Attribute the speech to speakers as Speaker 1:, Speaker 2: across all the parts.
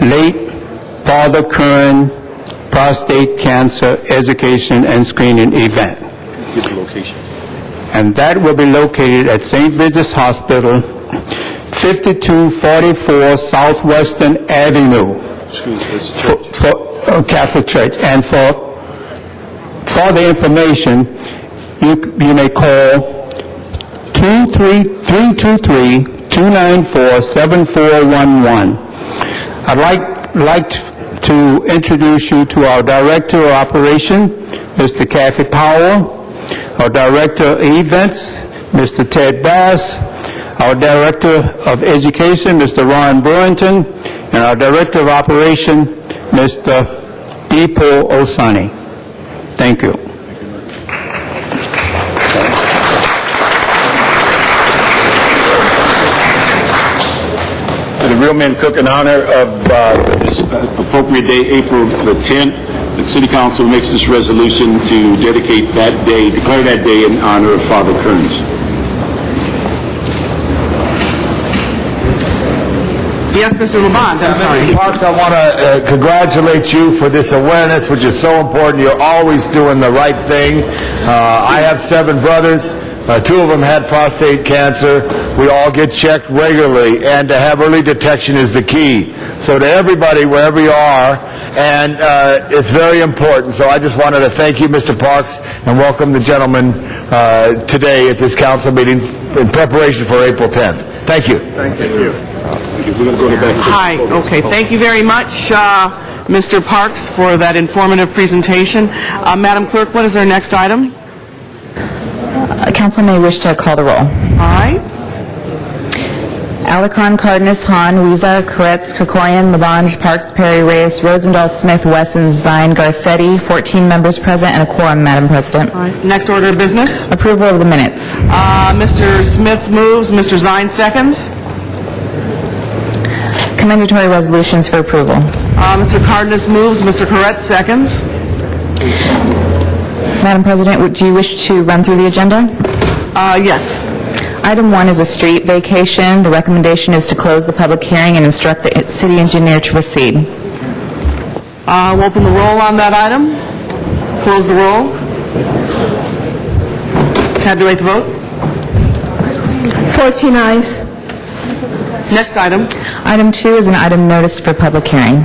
Speaker 1: late father Curran prostate cancer education and screening event.
Speaker 2: Get the location.
Speaker 1: And that will be located at St. Vincent's Hospital, 5244 Southwestern Avenue.
Speaker 2: Excuse me, it's a
Speaker 1: for
Speaker 2: church.
Speaker 1: for a Catholic Church. And for further information, you you may call 233-294-7411. I'd like like to introduce you to our Director of Operation, Mr. Kathy Powell, our Director of Events, Mr. Ted Bass, our Director of Education, Mr. Ron Brewington, and our Director of Operation, Mr. Deepo Osani. Thank you.
Speaker 2: To the Real Men Cook in honor of uh, this appropriate day, April the 10th, the city council makes this resolution to dedicate that day, declare that day in honor of Father Kearns.
Speaker 3: Yes, Mr. Labange, I'm sorry.
Speaker 4: Mr. Parks, I want to congratulate you for this awareness, which is so important. You're always doing the right thing. Uh, I have seven brothers. Uh, Two of them had prostate cancer. We all get checked regularly, and to have early detection is the key. So to everybody, wherever you are, and uh, it's very important. So I just wanted to thank you, Mr. Parks, and welcome the gentleman uh, today at this council meeting in preparation for April 10th. Thank you.
Speaker 2: Thank you. We're going to go to the back.
Speaker 3: Hi, okay, thank you very much, uh, Mr. Parks, for that informative presentation. Uh, Madam Clerk, what is our next item?
Speaker 5: Uh, Council may wish to call the roll.
Speaker 3: All right,
Speaker 5: Alarcon, Cardenas, Han, Weezer, Koretz, Krikorian, Labange, Parks, Perry, Reyes, Rosendahl, Smith, Wesson, Zine, Garcetti, 14 members present and a quorum, Madam President.
Speaker 3: all right. Next order of business,
Speaker 5: Approval of the minutes.
Speaker 3: Uh, Mr. Smith moves, Mr. Zine seconds.
Speaker 5: Commendatory resolutions for approval.
Speaker 3: Uh, Mr. Cardenas moves, Mr. Corretz seconds.
Speaker 5: Madam President, would- do you wish to run through the agenda?
Speaker 3: Uh, Yes.
Speaker 5: Item one is a street vacation. The recommendation is to close the public hearing and instruct the city engineer to proceed.
Speaker 3: Uh, We'll open the roll on that item. Close the roll. Tabulate the vote.
Speaker 6: 14 eyes.
Speaker 3: Next item.
Speaker 5: Item two is an item noticed for public hearing.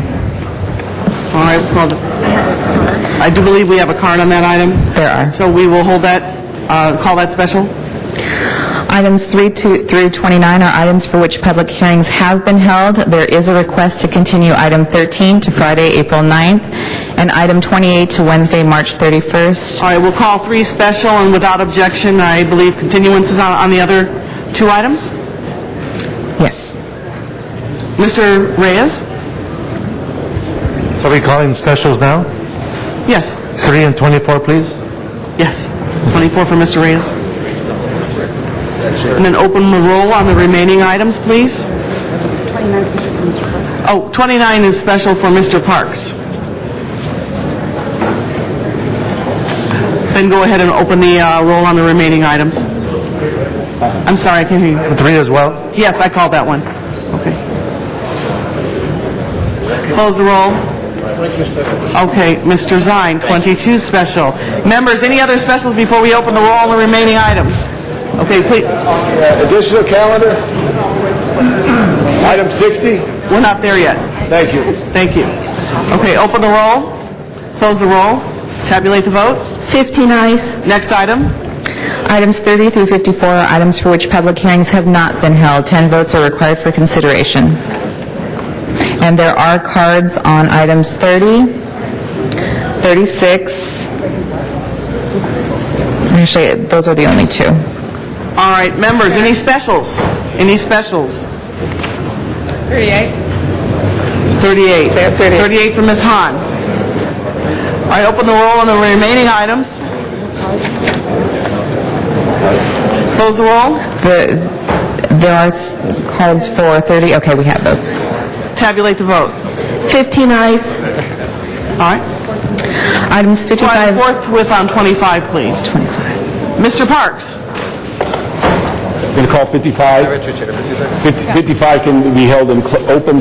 Speaker 3: All right, well, I do believe we have a card on that item.
Speaker 5: There are.
Speaker 3: So we will hold that, uh, call that special.
Speaker 5: Items 3 to- through 29 are items for which public hearings have been held. There is a request to continue item 13 to Friday, April 9th, and item 28 to Wednesday, March 31st.
Speaker 3: All right, we'll call three special, and without objection, I believe continuance is on on the other two items.
Speaker 5: Yes.
Speaker 3: Mr. Reyes?
Speaker 7: So are we calling specials now?
Speaker 3: Yes,
Speaker 7: 3 and 24, please?
Speaker 3: yes. 24 for Mr. Reyes. And then open the roll on the remaining items, please. Oh, 29 is special for Mr. Parks. Then go ahead and open the uh, roll on the remaining items. I'm sorry, I can't hear you.
Speaker 7: 3 as well?
Speaker 3: Yes, I called that one. Okay. Close the roll. Okay, Mr. Zine, 22 special. Members, any other specials before we open the roll on the remaining items? Okay, please,
Speaker 4: Additional calendar? Item 60?
Speaker 3: we're not there yet.
Speaker 4: Thank you.
Speaker 3: Thank you. Okay, open the roll, close the roll, tabulate the vote.
Speaker 6: 15 eyes.
Speaker 3: Next item.
Speaker 5: Items 30 through 54 are items for which public hearings have not been held. 10 votes are required for consideration. And there are cards on items 30, 36. Actually, those are the only two.
Speaker 3: All right, members, any specials? Any specials? 38. 38. 38 for Ms. Han. All right, open the roll on the remaining items. Close the roll,
Speaker 5: The, there are s- cards for 30, okay, we have those.
Speaker 3: tabulate the vote.
Speaker 6: 15 eyes.
Speaker 3: All right?
Speaker 5: Items
Speaker 3: Try
Speaker 5: 55...
Speaker 3: Fourth with on 25, please. 25. Mr. Parks?
Speaker 2: Going to call 55. 55 can be held in cl- open